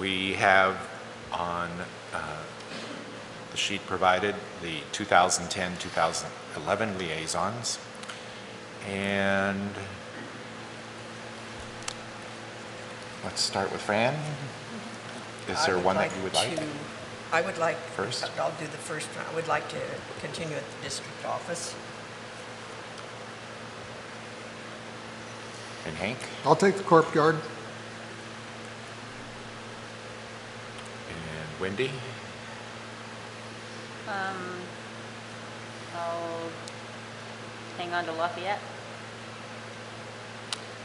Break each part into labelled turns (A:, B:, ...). A: We have on uh, the sheet provided the 2010-2011 liaisons. And let's start with Fran. Is
B: I
A: there
B: would
A: one that you would like?
B: to- I would like.
A: First?
B: I'll do the first one. I would like to continue at the district office.
A: And Hank?
C: I'll take the Corp Yard.
A: And Wendy?
D: Um, I'll Oh, hang on to Lafayette.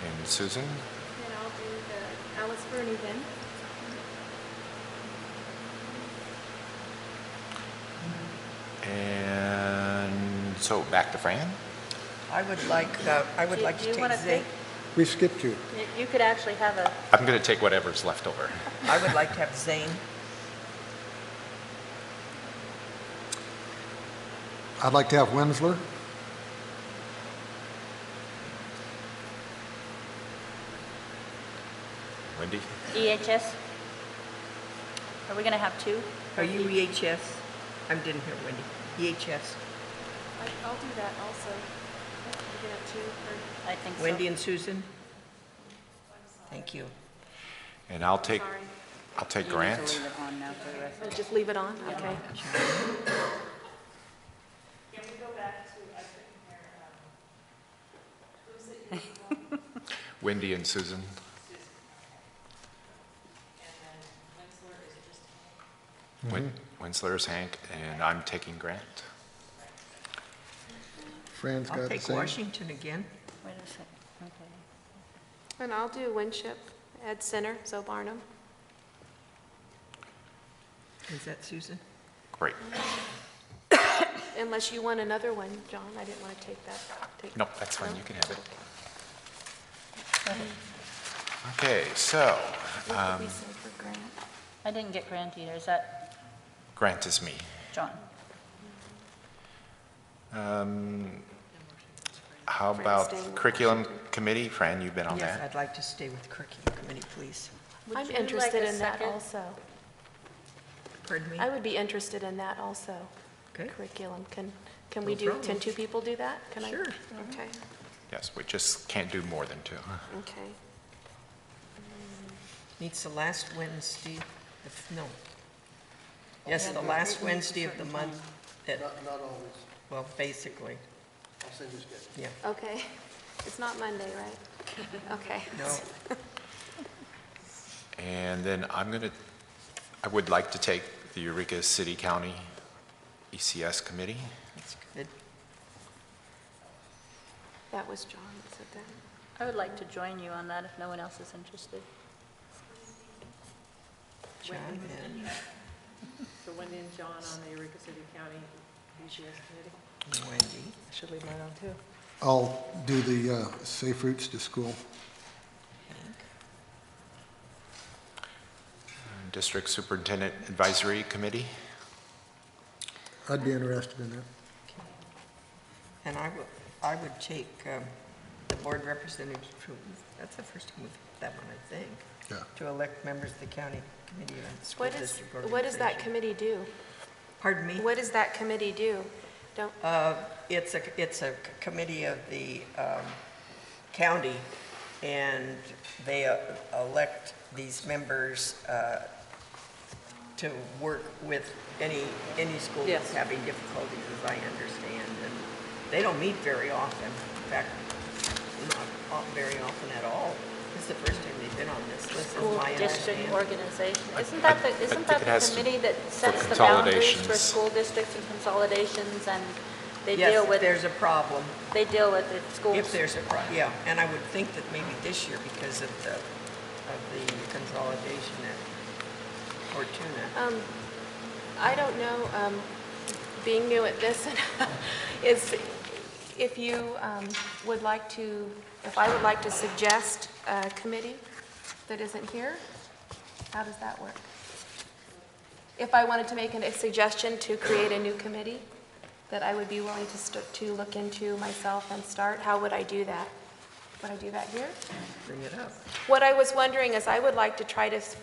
A: And Susan?
E: And I'll do the Alice Bernie then.
A: And so back to Fran?
B: I would like, uh, I would
D: Do-
B: like
D: do
B: to
D: you
B: take
D: wanna
B: the,
C: We skipped you.
D: You- You could actually have a,
A: I'm going to take whatever's left over.
B: I would like to have Zane.
C: I'd like to have Winsler.
A: Wendy?
D: EHS? E Are we going to have two?
B: Are you
D: E
B: EHS? I didn't hear Wendy. E EHS,
E: I- I'll do that also. We're gonna have two for-
D: I think so.
B: Wendy and Susan? Thank you.
A: And I'll take,
E: Sorry.
A: I'll take
D: You need to
A: Grant.
D: leave it on now for the rest.
E: Oh, Just leave it on, okay.
A: Wendy and Susan. Win- Winsler is Hank, and I'm taking Grant.
C: Fran's
B: I'll
C: got the
B: take
C: same.
B: Washington again.
D: Wait a second, okay.
E: And I'll do Winship, Ed Center, Zoe Barnum.
B: Is that Susan?
A: Great.
E: Unless you want another one, John, I didn't want to take that. take-
A: No, that's fine,
E: No?
A: you can have it. Okay, so
E: What did
B: Um,
E: we say for Grant?
D: I didn't get Grant either, is that
A: Grant is me.
D: John?
A: Um, How
E: Fran,
A: about
E: stay with
A: curriculum committee? Fran, you've been on
B: Yes,
A: that?
B: I'd like to stay with curriculum committee, please.
D: Would
E: I'm
D: you like
E: interested
D: a
E: in that
D: second?
E: also.
B: Pardon me?
E: I would be interested in that also.
B: Okay.
E: Curriculum, can, can
B: No
E: we do,
B: problem.
E: can two people do that? Can I?
B: Sure.
E: Okay,
A: Yes, we just can't do more than two.
E: okay.
B: Meets the last Wednesday, the f- no. Yes, the last Wednesday of the month. at-
F: Not, not always.
B: Well, basically,
F: I'll send you a schedule.
B: yeah,
E: Okay, it's not Monday, right? Okay.
B: no.
A: And then I'm going to, I would like to take the Eureka City County ECS Committee.
B: That's good.
E: That was John that said that.
D: I would like to join you on that if no one else is interested.
B: John and,
G: So Wendy and John on the Eureka City County BGS Committee?
B: Wendy.
G: I should leave mine on too.
C: I'll do the uh, Safe Routes to School.
A: District Superintendent Advisory Committee.
C: I'd be interested in that.
B: And I would, I would take um, the board representatives to, that's the first time we've, that one, I think,
C: Yeah.
B: to elect members of the county committee on school
E: What is,
B: district
E: what does that
B: organization.
E: committee do?
B: Pardon me?
E: What does that committee do? Don't,
B: Uh, It's a, it's a c- committee of the um, county, and they uh, elect these members uh, to work with any, any school that's
G: Yes.
B: having difficulties, as I understand. And they don't meet very often, in fact, not o- very often at all. This is the first time they've been on this list, is
D: School
B: my
D: district
B: understanding.
D: organization.
A: I-
D: Isn't that
A: I- I
D: the, isn't
A: think
D: that
A: it has
D: the
A: to-
D: committee that sets the boundaries
A: consolidations.
D: for school districts and consolidations and they
B: Yes,
D: deal
B: if
D: with,
B: there's a problem,
D: they deal with the schools?
B: if there's a problem, yeah. And I would think that maybe this year, because of the, of the consolidation at Fortuna,
E: um, I don't know, um, being new at this, is if you, um, would like to, if I would like to suggest a committee that isn't here, how does that work? If I wanted to make an- a suggestion to create a new committee that I would be willing to, st- to look into myself and start, how would I do that? Would I do that here?
B: bring it up.
E: What I was wondering is I would like to try to s-